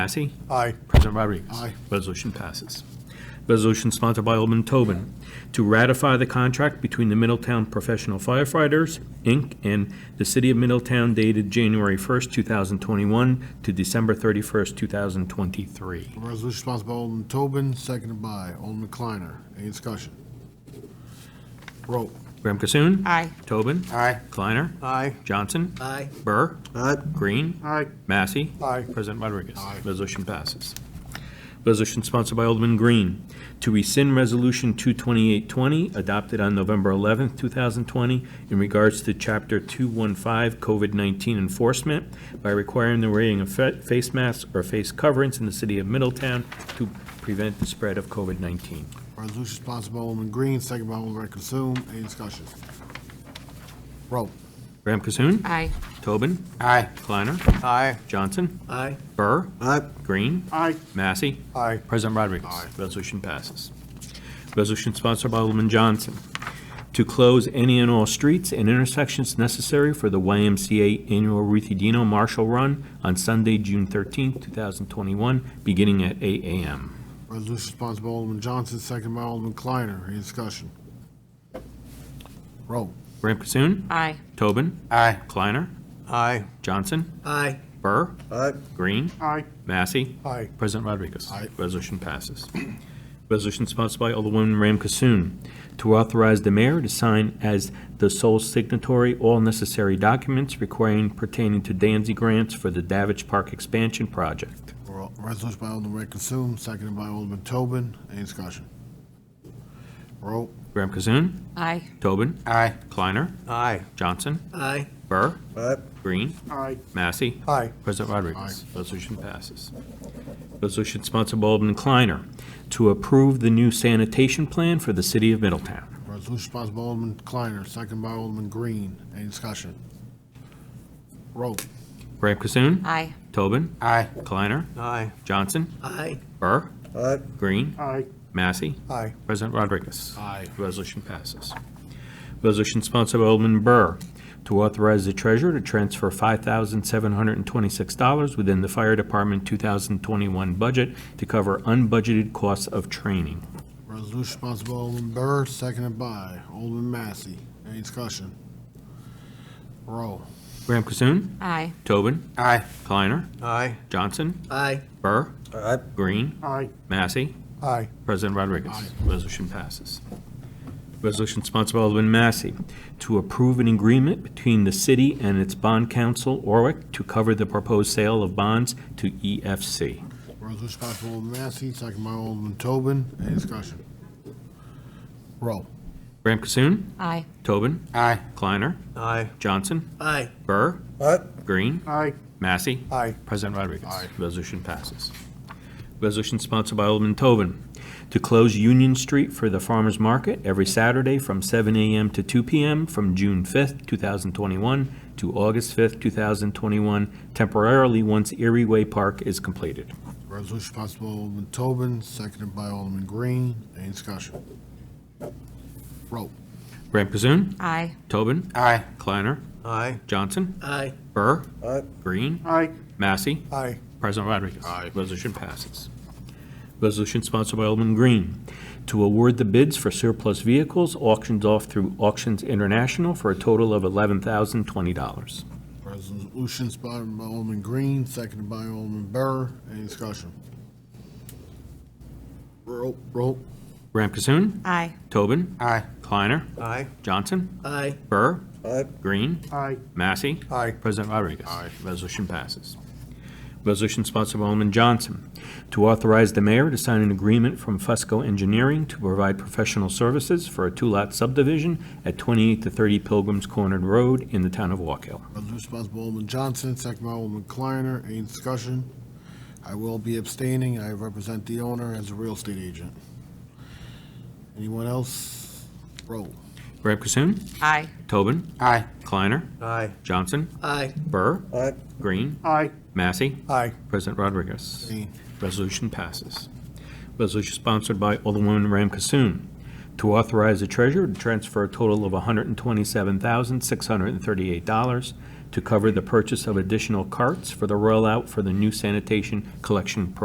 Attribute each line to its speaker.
Speaker 1: Massey?
Speaker 2: Aye.
Speaker 1: President Rodriguez?
Speaker 2: Aye.
Speaker 1: Resolution passes. Resolution sponsored by Alderman Tobin to ratify the contract between the Middletown Professional Firefighters, Inc. and the City of Middletown dated January 1st, 2021 to December 31st, 2023.
Speaker 2: Resolution sponsored by Alderman Tobin, seconded by Alderman Kleiner. Any discussion? Roll.
Speaker 1: Graham Cassoon?
Speaker 3: Aye.
Speaker 1: Tobin?
Speaker 2: Aye.
Speaker 1: Kleiner?
Speaker 2: Aye.
Speaker 1: Johnson?
Speaker 4: Aye.
Speaker 1: Burr?
Speaker 4: Aye.
Speaker 1: Green?
Speaker 2: Aye.
Speaker 1: Massey?
Speaker 2: Aye.
Speaker 1: President Rodriguez?
Speaker 2: Aye.
Speaker 1: Resolution passes. Resolution sponsored by Alderman Green to rescind Resolution 22820, adopted on November 11th, 2020, in regards to Chapter 215 COVID-19 enforcement by requiring the wearing of fa- face masks or face coverings in the city of Middletown to prevent the spread of COVID-19.
Speaker 2: Resolution sponsored by Alderman Green, seconded by Alderman Consoom. Any discussion? Roll.
Speaker 1: Graham Cassoon?
Speaker 3: Aye.
Speaker 1: Tobin?
Speaker 2: Aye.
Speaker 1: Kleiner?
Speaker 2: Aye.
Speaker 1: Johnson?
Speaker 4: Aye.
Speaker 1: Burr?
Speaker 4: Aye.
Speaker 1: Green?
Speaker 2: Aye.
Speaker 1: Massey?
Speaker 2: Aye.
Speaker 1: President Rodriguez.
Speaker 2: Aye.
Speaker 1: Resolution passes. Resolution sponsored by Alderman Johnson to close any and all streets and intersections necessary for the YMCA Annual Ruthie Dino Marshall Run on Sunday, June 13, 2021, beginning at 8 a.m.
Speaker 2: Resolution sponsored by Alderman Johnson, seconded by Alderman Kleiner. Any discussion? Roll.
Speaker 1: Graham Cassoon?
Speaker 3: Aye.
Speaker 1: Tobin?
Speaker 2: Aye.
Speaker 1: Kleiner?
Speaker 2: Aye.
Speaker 1: Johnson?
Speaker 4: Aye.
Speaker 1: Burr?
Speaker 4: Aye.
Speaker 1: Green?
Speaker 2: Aye.
Speaker 1: Massey?
Speaker 2: Aye.
Speaker 1: President Rodriguez.
Speaker 2: Aye.
Speaker 1: Resolution passes. Resolution sponsored by Alderwoman Ram Kasoon to authorize the mayor to sign as the sole signatory all necessary documents requiring pertaining to Danzi grants for the Davidge Park expansion project.
Speaker 2: Resolution by Alderman Consoom, seconded by Alderman Tobin. Any discussion? Roll.
Speaker 1: Ram Kasoon,
Speaker 3: Aye.
Speaker 1: Tobin,
Speaker 2: Aye.
Speaker 1: Kleiner,
Speaker 4: Aye.
Speaker 1: Johnson,
Speaker 4: Aye.
Speaker 1: Burr,
Speaker 4: Aye.
Speaker 1: Green,
Speaker 2: Aye.
Speaker 1: Massey,
Speaker 2: Aye.
Speaker 1: President Rodriguez. Resolution passes. Resolution sponsored by Alderman Kleiner to approve the new sanitation plan for the city of Middletown.
Speaker 2: Resolution sponsored by Alderman Kleiner, second by Alderman Green. Any discussion? Roll.
Speaker 1: Graham Cassoon.
Speaker 3: Aye.
Speaker 1: Tobin.
Speaker 2: Aye.
Speaker 1: Kleiner.
Speaker 4: Aye.
Speaker 1: Johnson.
Speaker 4: Aye.
Speaker 1: Burr.
Speaker 4: Aye.
Speaker 1: Green.
Speaker 2: Aye.
Speaker 1: Massey.
Speaker 2: Aye.
Speaker 1: President Rodriguez.
Speaker 2: Aye.
Speaker 1: Resolution passes. Resolution sponsored by Alderman Burr to authorize the treasurer to transfer $5,726 within the Fire Department 2021 budget to cover unbudgeted costs of training.
Speaker 2: Resolution sponsored by Alderman Burr, seconded by Alderman Massey. Any discussion? Roll.
Speaker 1: Graham Cassoon.
Speaker 3: Aye.
Speaker 1: Tobin.
Speaker 2: Aye.
Speaker 1: Kleiner.
Speaker 4: Aye.
Speaker 1: Johnson.
Speaker 4: Aye.
Speaker 1: Burr.
Speaker 4: Aye.
Speaker 1: Green.
Speaker 2: Aye.
Speaker 1: Massey.
Speaker 2: Aye.
Speaker 1: President Rodriguez.
Speaker 2: Aye.
Speaker 1: Resolution passes. Resolution sponsored by Alderman Massey to approve an agreement between the city and its bond council, Orwick, to cover the proposed sale of bonds to E EFC.
Speaker 2: Resolution sponsored by Alderman Massey, second by Alderman Tobin. Any discussion? Roll.
Speaker 1: Graham Cassoon,
Speaker 3: Aye.
Speaker 1: Tobin,
Speaker 2: Aye.
Speaker 1: Kleiner,
Speaker 4: Aye.
Speaker 1: Johnson,
Speaker 4: Aye.
Speaker 1: Burr,
Speaker 4: Aye.
Speaker 1: Green,
Speaker 2: Aye.
Speaker 1: Massey.
Speaker 2: Aye.
Speaker 1: President Rodriguez.
Speaker 2: Aye.
Speaker 1: Resolution passes. Resolution sponsored by Alderman Tobin to close Union Street for the farmer's market every Saturday from 7 a.m. to 2 p.m. from June 5th, 2021 to August 5th, 2021, temporarily once Erie Way Park is completed.
Speaker 2: Resolution sponsored by Alderman Tobin, seconded by Alderman Green. Any discussion? Roll.
Speaker 1: Graham Kazoon,
Speaker 3: Aye.
Speaker 1: Tobin,
Speaker 2: Aye.
Speaker 1: Kleiner,
Speaker 4: Aye.
Speaker 1: Johnson,
Speaker 4: Aye.
Speaker 1: Burr,
Speaker 4: Aye.
Speaker 1: Green,
Speaker 2: Aye.
Speaker 1: Massey,
Speaker 2: Aye.
Speaker 1: President Rodriguez.
Speaker 2: Aye.
Speaker 1: Resolution passes. Resolution sponsored by Alderman Green to award the bids for surplus vehicles auctioned off through Auctions International for a total of $11,020.
Speaker 2: Resolution sponsored by Alderman Green, seconded by Alderman Burr. Any discussion? Roll. Roll.
Speaker 1: Graham Cassoon,
Speaker 3: Aye.
Speaker 1: Tobin,
Speaker 2: Aye.
Speaker 1: Kleiner,
Speaker 4: Aye.
Speaker 1: Johnson,
Speaker 4: Aye.
Speaker 1: Burr,
Speaker 4: Aye.
Speaker 1: Green,
Speaker 2: Aye.
Speaker 1: Massey.
Speaker 2: Aye.
Speaker 1: President Rodriguez.
Speaker 2: Aye.
Speaker 1: Resolution passes. Resolution sponsored by Alderman Johnson to authorize the mayor to sign an agreement from Fusco Engineering to provide professional services for a two-lot subdivision at 28 to 30 Pilgrims Cornered Road in the town of Walk Hill.
Speaker 2: Resolution sponsored by Alderman Johnson, seconded by Alderman Kleiner. Any discussion? I will be abstaining. I represent the owner as a real estate agent. Anyone else? Roll.
Speaker 1: Graham Cassoon,
Speaker 3: Aye.
Speaker 1: Tobin,
Speaker 2: Aye.
Speaker 1: Kleiner,
Speaker 4: Aye.
Speaker 1: Johnson,
Speaker 4: Aye.
Speaker 1: Burr,
Speaker 4: Aye.
Speaker 1: Green,
Speaker 2: Aye.
Speaker 1: Massey,
Speaker 2: Aye.
Speaker 1: President Rodriguez. Resolution passes. Resolution sponsored by Alderwoman Ram Kasoon to authorize the treasurer to transfer a total of $127,638 to cover the purchase of additional carts for the rollout for the new sanitation collection program.